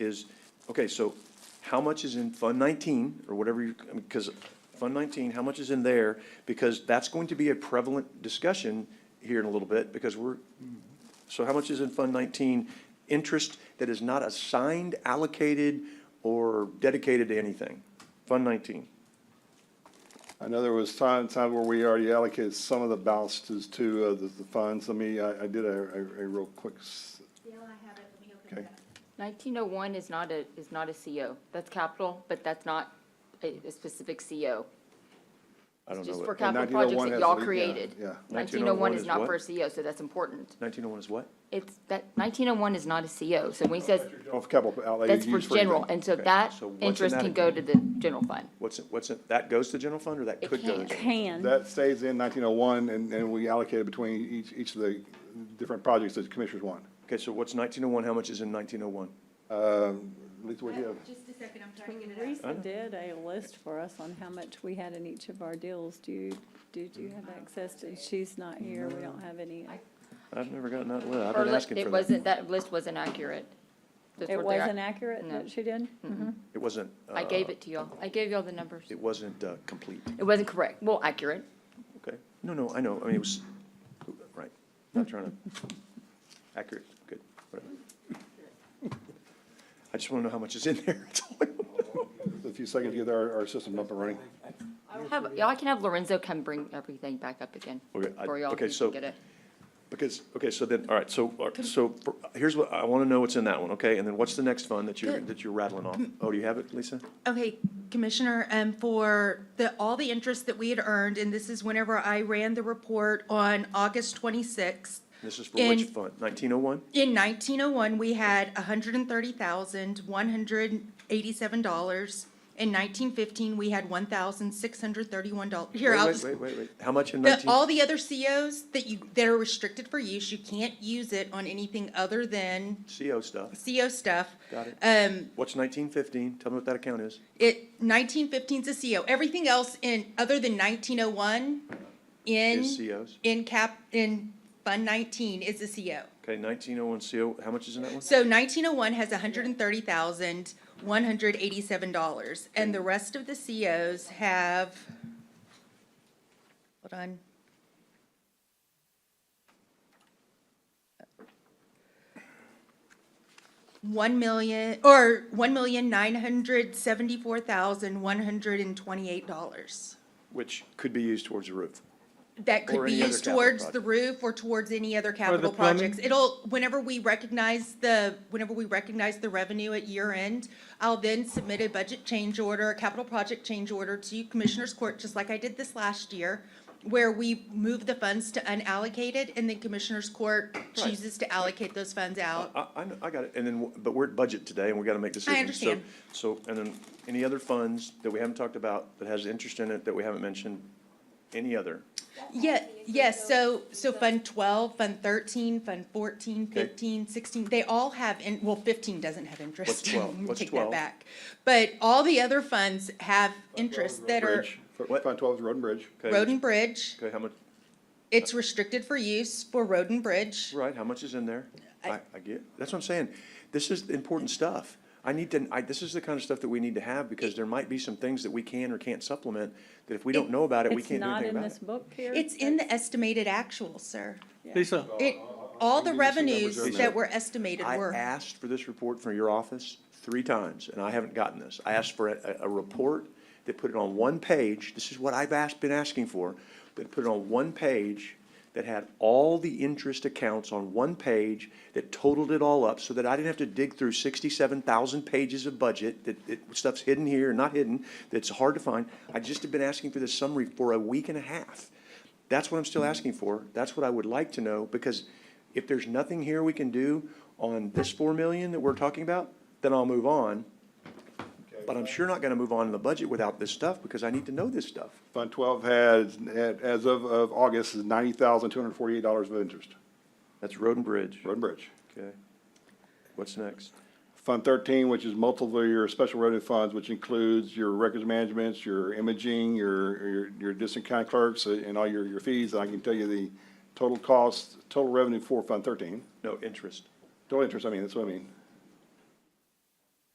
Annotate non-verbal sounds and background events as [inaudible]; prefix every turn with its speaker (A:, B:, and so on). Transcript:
A: is, okay, so how much is in Fund 19, or whatever you, because Fund 19, how much is in there? Because that's going to be a prevalent discussion here in a little bit, because we're, so how much is in Fund 19, interest that is not assigned, allocated, or dedicated to anything? Fund 19.
B: I know there was time, time where we already allocated some of the balances to uh, the, the funds. Let me, I, I did a, a, a real quick, s-
C: Yeah, I have it, let me open
B: okay.
C: it up.
D: 1901 is not a, is not a CO. That's capital, but that's not a a specific CO.
A: I don't
D: It's
A: know.
D: just
A: what-
D: for capital
B: 1901
D: projects that
B: has
D: y'all
B: a- yeah,
D: created.
B: yeah.
D: 1901
A: 1901
D: is
A: is
D: not
A: what?
D: for a CO, so that's important.
A: 1901 is what?
D: It's, that, 1901 is not a CO, so when he says,
A: Oh,
B: Of capital outlay.
D: that's for
B: used
D: general,
B: anything.
D: and so
A: Okay,
D: that
A: so what's in
D: interest
A: that
D: can go to
A: account?
D: the general fund.
A: What's, it? what's, it? that goes to general fund, or that
D: It
A: could go? to
D: can't.
A: general-
E: Can,
B: That stays in nineteen oh one and, and we allocated between each, each of the different projects that the commissioners want.
A: Okay, so what's 1901, how much is in 1901?
B: Um, At least we have,
C: Just a second, I'm trying to get it up.
E: Teresa did a list for us on how much we had in each of our deals. Do you, did you have access to, she's not here, we don't have any.
A: I've never gotten that, well, I've
D: Her
A: been
D: li-
A: asking for that.
D: It wasn't, that list wasn't accurate. That's
E: It
D: what they're-
E: wasn't accurate
D: No.
E: that she did?
C: Mm-hmm.
A: It wasn't.
D: I gave
A: uh,
D: it to y'all. I gave y'all the numbers.
A: It wasn't uh, complete,
D: It wasn't correct. Well, accurate.
A: okay? No, no, I know, I mean, it was, right, not trying to, accurate, good, whatever. I just want to know how much is in there. [laughs] That's all I wanna know.
B: a few seconds to get our, our system up and running.
D: Have, y'all can have Lorenzo come bring everything back up again.
A: Okay, I-
D: For y'all,
A: okay,
D: you
A: so-
D: can get it.
A: Because, okay, so then, all right, so, all right, so for- here's what, I want to know what's in that one, okay? And then what's the next fund that you're, that you're rattling off? Oh, do you have it, Lisa?
C: Okay, Commissioner, um, for the, all the interest that we had earned, and this is whenever I ran the report on August twenty-sixth.
A: This is for which
C: In-
A: fund? 1901?
C: In nineteen oh one, we had hundred and thirty thousand, one hundred eighty-seven dollars. In nineteen fifteen, we had one thousand, six hundred thirty-one dollars. Here,
A: Wait,
C: I'll
A: wait,
C: just,
A: Wait, wait, wait, how much in
C: the-
A: 19?
C: all the other COs that you, that are restricted for use, you can't use it on anything other than
A: CO stuff,
C: CO stuff.
A: got it?
C: Um,
A: What's 1915? Tell me what that account is.
C: It, nineteen fifteen's a CO. E Everything else in, other than nineteen oh one, in.
A: Is E COs.
C: In cap, in fund nineteen is E a CO.
A: Okay, 1901 CO, how much is in that one?
C: So nineteen oh one has hundred and thirty thousand, one hundred eighty-seven dollars, and the rest of the COs have, hold on. One million, or one million, nine hundred seventy-four thousand, one hundred and twenty-eight dollars.
A: Which could be used towards the roof.
C: That
A: Or
C: could be
A: any other
C: used
A: capital
C: towards the
A: project.
C: roof or towards any other capital
F: plumbing.
C: projects. It'll, whenever we recognize the, whenever we recognize the revenue at year end, I'll then submit a budget change order, a capital project change order to Commissioners Court, just like I did this last year, where we move the funds to unallocated and then Commissioners Court chooses to allocate those funds out.
A: I, I, know- I got it, and then, w- but we're at budget today, and we gotta make decisions. So-
C: understand.
A: So, and then, any other funds that we haven't talked about, that has interest in it, that we haven't mentioned, any other?
C: Yeah, yes, so, so Fund twelve, Fund thirteen, Fund 14, 15, 16.
A: Okay.
C: they all have, in well, fifteen doesn't have interest.
A: What's
C: [laughs]
A: 12? What's
C: Take
A: 12?
C: that back. But all the other funds have interests that are
B: Bridge, F-
A: What?
B: Fund twelve is road and bridge.
A: Okay,
C: road and bridge.
A: Okay, how much,
C: It's restricted for use for road and bridge.
A: right, how much is in there?
C: I-
A: I, I get, that's what I'm saying, this is important stuff. I need to, I, this is the kind of stuff that we need to have, because there might be some things that we can or can't supplement, that if we don't know about it, we
E: It's
A: can't do
E: not
A: anything
E: in
A: about
E: this
A: it.
E: book here?
C: It's in the estimated actual, sir.
F: Lisa,
C: It, all the
B: I'll give you some numbers
C: revenues
B: on that.
C: that were estimated
A: I
C: were.
A: asked for this report from your office three times, and I haven't gotten this. I asked for a, a report that put it on one page, this is what I've asked, been asking for, but put it on one page that had all the interest accounts on one page, that totaled it all up, so that I didn't have to dig through sixty-seven thousand pages of budget, that, that stuff's hidden here, and not hidden, that's hard to find. I just have been asking for this summary for a week and a half. That's what I'm still asking for. That's what I would like to know, because if there's nothing here we can do on this four million that we're talking about, then I'll move on. But I'm sure not gonna move on in the budget without this stuff, because I need to know this stuff.
B: Fund twelve has, at- as of, of August, is ninety thousand, two hundred and forty-eight dollars of interest,
A: That's road and bridge.
B: road and bridge.
A: Okay. What's next?
B: Fund thirteen, which is multiple your special revenue funds, which includes your records management, your imaging, your, your, your distant kind clerks, uh, and all your, your fees. I can tell you the total cost, total revenue for Fund thirteen,
A: No, interest.
B: total interest, I mean, that's what I mean.